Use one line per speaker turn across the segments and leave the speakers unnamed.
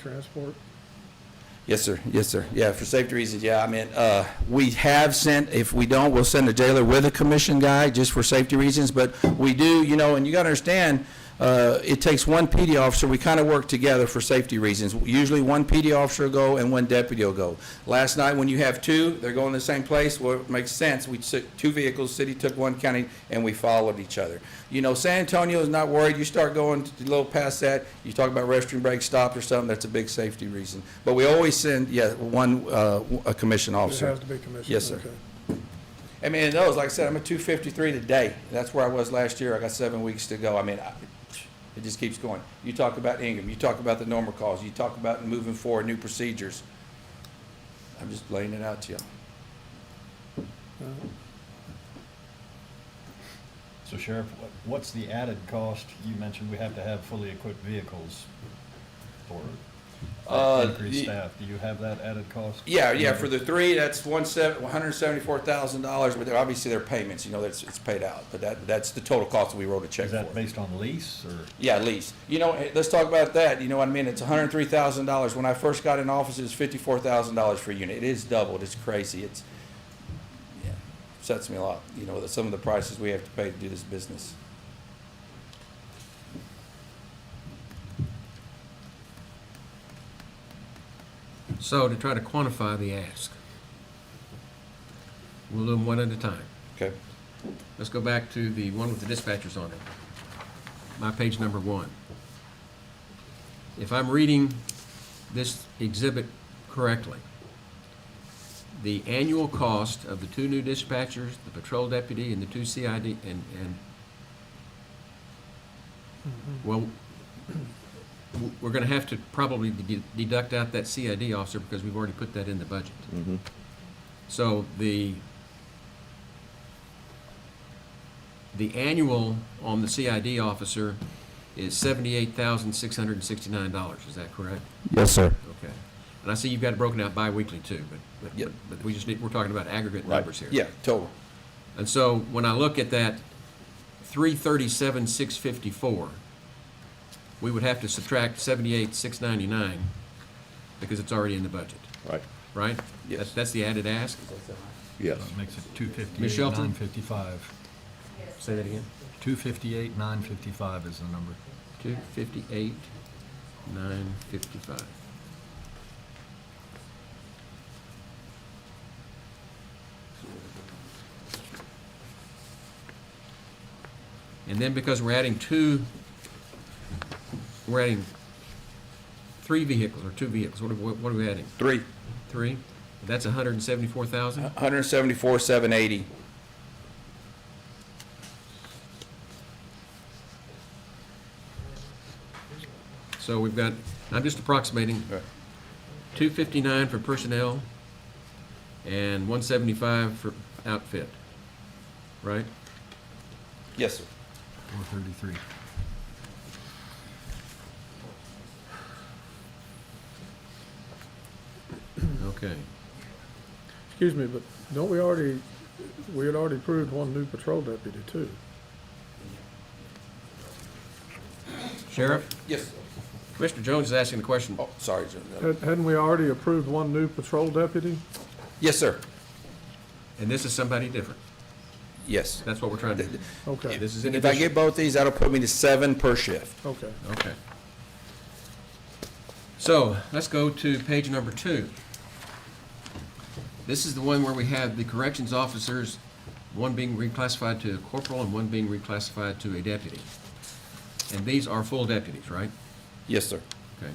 transport?
Yes, sir. Yes, sir. Yeah, for safety reasons, yeah. I mean, uh, we have sent, if we don't, we'll send a jailer with a commission guy just for safety reasons. But we do, you know, and you gotta understand, uh, it takes one PD officer. We kind of work together for safety reasons. Usually one PD officer will go and one deputy will go. Last night, when you have two, they're going to the same place, well, it makes sense. We took two vehicles, city took one county, and we followed each other. You know, San Antonio is not worried. You start going a little past that, you talk about restroom break stops or something, that's a big safety reason. But we always send, yeah, one, uh, a commission
It
officer.
has to be commissioned?
Yes, sir.
okay.
I mean, and those, like I said, I'm at two fifty-three today. That's where I was last year. I got seven weeks to go. I mean, I, it just keeps going. You talk about Ingram, you talk about the normal calls, you talk about moving forward, new procedures. I'm just laying it out to you.
All right.
So Sheriff, what- what's the added cost? You mentioned we have to have fully equipped vehicles for
Uh,
increased
the-
staff. Do you have that added cost?
Yeah, yeah, for the three, that's one seven, one hundred and seventy-four thousand dollars, but they're- obviously their payments, you know, that's, it's paid out, but that, that's the total cost that we wrote a check
Is that
for.
based on lease or?
Yeah, lease. You know, eh, let's talk about that, you know what I mean, it's hundred and three thousand dollars. When I first got in office, it was fifty-four thousand dollars for a unit. It is doubled, it's crazy, it's, yeah, upsets me a lot, you know, that some of the prices we have to pay to do this business.
So to try to quantify the ask, we'll do them one at a time.
Okay.
Let's go back to the one with the dispatchers on it. My page number one. If I'm reading this exhibit correctly, the annual cost of the two new dispatchers, the patrol deputy and the two CID and, and, well, w- we're gonna have to probably de- deduct out that CID officer because we've already put that in the budget.
Mm-hmm.
So the The annual on the CID officer is seventy-eight thousand, six hundred and sixty-nine dollars, is that correct?
Yes, sir.
Okay. And I see you've got it broken out bi-weekly too, but- but,
Yep.
but, but we just need, we're talking about aggregate numbers here.
Yeah, total.
And so when I look at that three thirty-seven, six fifty-four, we would have to subtract seventy-eight, six ninety-nine, because it's already in the budget,
Right,
right?
Yes.
That's- That's the added ask?
yes.
That Makes it two
Ms.
fifty-eight,
Shelton?
nine fifty-five.
Say that again.
Two fifty-eight, nine fifty-five is the number.
Two fifty-eight, nine fifty-five. And then because we're adding two, we're adding three vehicles or two vehicles, what are, what are we adding?
Three,
Three? That's a hundred and seventy-four thousand?
hundred and seventy-four, seven eighty.
So we've got, I'm just approximating,
Right.
two fifty-nine for personnel and one seventy-five for outfit, right?
Yes, sir.
Four thirty-three.
Okay.
Excuse me, but don't we already, we had already approved one new patrol deputy too?
Sheriff,
Yes. sir.
Commissioner Jones is asking the question.
Oh, sorry, Jim.
Had- Hadn't we already approved one new patrol deputy?
Yes, sir.
And this is somebody different.
Yes.
That's what we're trying to do.
Okay,
This is in
If I
addition.
get both these, that'll put me to seven per shift.
okay.
Okay. So, let's go to page number two. This is the one where we have the corrections officers, one being reclassified to a corporal and one being reclassified to a deputy. And these are full deputies, right?
Yes, sir.
Okay.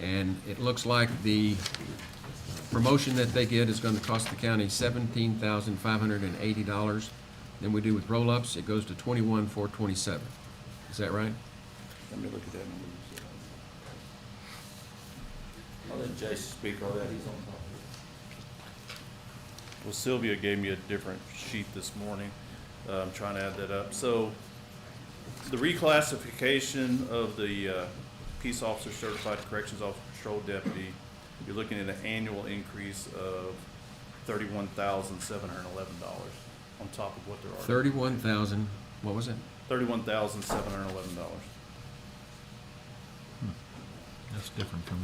And it looks like the promotion that they get is gonna cost the county seventeen thousand five hundred and eighty dollars. Then we do with roll-ups, it goes to twenty-one four twenty-seven. Is that right?
Let me look at that. I'll let Jason speak on that. He's on top
Well, Sylvia gave me a different sheet this morning. Uh, I'm trying to add that up. So the reclassification of the uh, peace officer, certified corrections officer, patrol deputy, you're looking at an annual increase of thirty-one thousand, seven hundred and eleven dollars on top of what there are.
Thirty-one thousand, what was it?
Thirty-one thousand, seven hundred and eleven dollars.
That's different from